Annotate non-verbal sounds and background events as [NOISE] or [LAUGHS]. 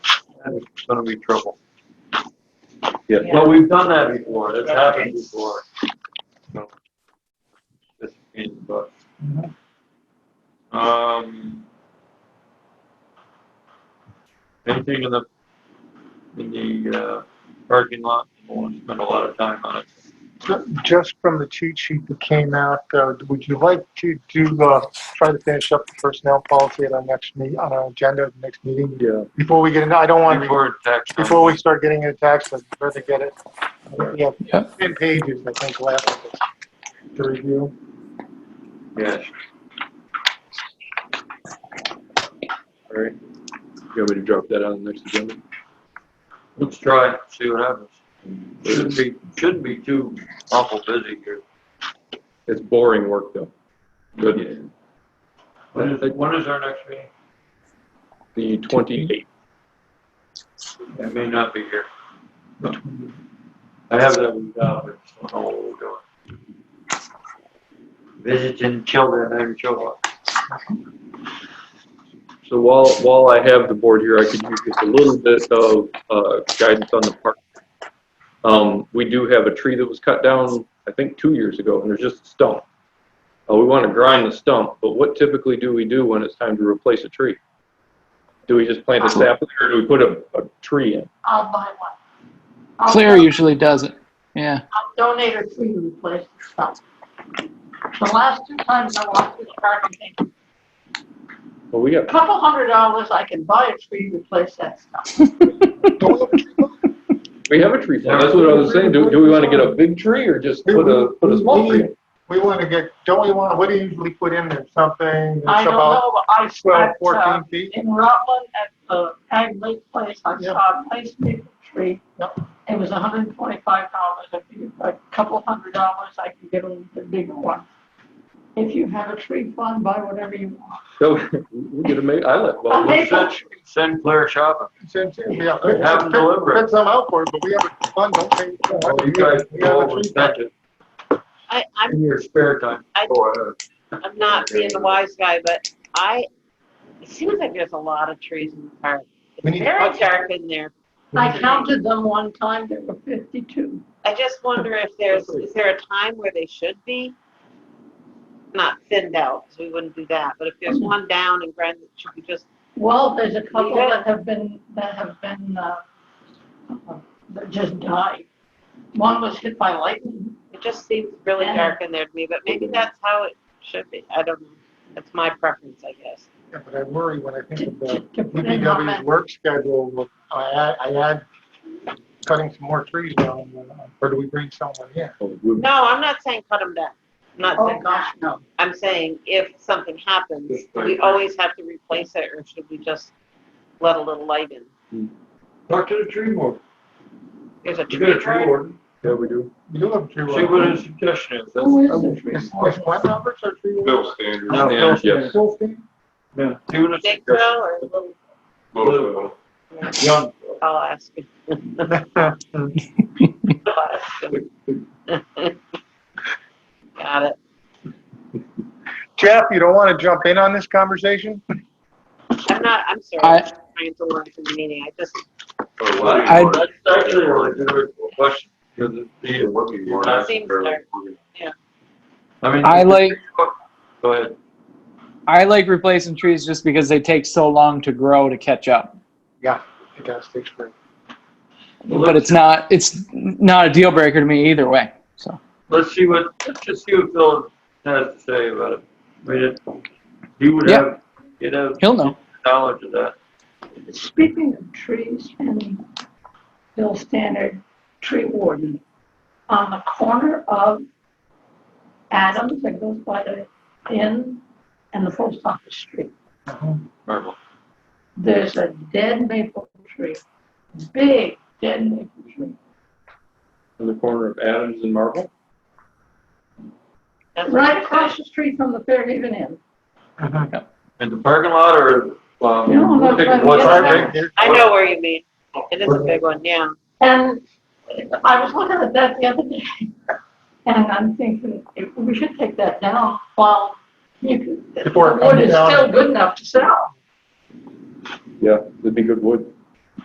That's gonna be trouble. Yeah. Well, we've done that before, that's happened before. So, This in, but. Um. Anything in the, in the, uh, parking lot, I won't spend a lot of time on it. Just from the cheat sheet that came out, uh, would you like to do, uh, try to finish up the personnel policy at our next meet, on our agenda, at the next meeting? Yeah. Before we get into, I don't want, Before tax. before we start getting into taxes, better get it. We have Yeah. ten pages, I think, left of it to review. Yes, All right. You want me to drop that on the next agenda? let's try, it, see what happens. Shouldn't be, shouldn't be too awful busy here. It's boring work though. Good. When is, when is our next meeting? The twenty-eighth. I may not be here. I have that week out, but I don't know what we're doing. Visiting children and children. So while, while I have the board here, I could use just a little bit of, uh, guidance on the park. Um, we do have a tree that was cut down, I think, two years ago, and there's just a stump. Uh, we wanna grind the stump, but what typically do we do when it's time to replace a tree? Do we just plant a sapling, or do we put a, a tree in? I'll buy one. I'll- Claire usually does it. Yeah. I'll donate a tree to replace the stuff. The last two times I walked this park, I think, Well, we a got, couple hundred dollars, I can buy a tree, to replace that stuff. Don't look at your- we have a tree farm, that's what I was saying, do, do we wanna get a big tree, or just put a, put a small tree in? We want to get, don't we want, what do you usually put in there? Something I that's don't about know, but I twelve, spent, uh, fourteen feet? in Rutland at the Ag Lake Place, I Yeah. saw a place maple tree. It was hundred and twenty-five dollars, I figured for a couple hundred dollars, I could get a the bigger one. If you have a tree fund, buy whatever you want. So, [LAUGHS] we get a ma, I like, well, A we- maple Send, send Claire shopping. Since, yeah. Have them deliver it. Put some out for it, but we have a fund, don't pay. Oh, Oh, You guys We have go a over and tree fetch it I, I'm, in your spare time. I- Go ahead. I'm not being the wise guy, but I, it seems like there's a lot of trees in the park. We It's need- very dark in there. I counted them one time, there were fifty-two. I just wonder if there's, is there a time where they should be? Not thinned out, because we wouldn't do that, but if there's one down and ground, it should be just, Well, there's a couple Yeah. that have been, that have been, uh, uh, that just died. One was hit by lightning. it just seems really Yeah. dark in there to me, but maybe that's how it should be. I don't know. That's my preference, I guess. Yeah, But I worry when I think to- of to- the to put in on DPW's that. work schedule, I add, I add cutting some more trees down, uh, or do we bring someone in? No, I'm not saying cut them down. I'm not Oh, saying, gosh, no. I'm saying if something happens, Just do like we that. always have to replace it, or should we just let a little light in? Talk to the tree warden. There's a You tree got a tree guard. warden. yeah, we do. You do have tree. See what his suggestion is. That's- Who is the tree? Is, is Glenn Roberts our tree? warden? Sanders, No, Yeah, yes. Phil Finn? Yeah, see what his Big suggestion. or a little, Louisville. Young. I'll ask him. I'll ask him. [LAUGHS] Got it. [LAUGHS] Jeff, you don't want to jump in on this conversation? I'm not, I'm sorry, I- I'm just trying to learn from the meeting. I just, Or Well, I- Louisville. That's actually a really good question. Because it- Yeah, what we want. It seems Or- dark. I mean. I like Go ahead. I like replacing trees just because they take so long to grow to catch up. It does take spring. But it's not it's not a deal breaker to me either way. So let's see what, let's just see what Phil has to say about it. I mean, it- he would Yeah. have, he'd have he'll know. knowledge of that. Speaking of trees and Bill Standard, tree warden, on the corner of Adams that goes by the inn and the post office street, Marvel. there's a dead maple tree, big dead maple tree. in the corner of Adams and Marble. that's what Right I'm across saying. the street from the Fairhaven Inn. In the parking lot or, um, No, no, take no, what's no, our no. big- I know where you mean. It is a big one, yeah. And Um, I was looking at that the other day, [LAUGHS] and I'm thinking, if- we should take that down while you could, the Before it wood comes is down. still good enough to sell. Yeah, that'd be good wood.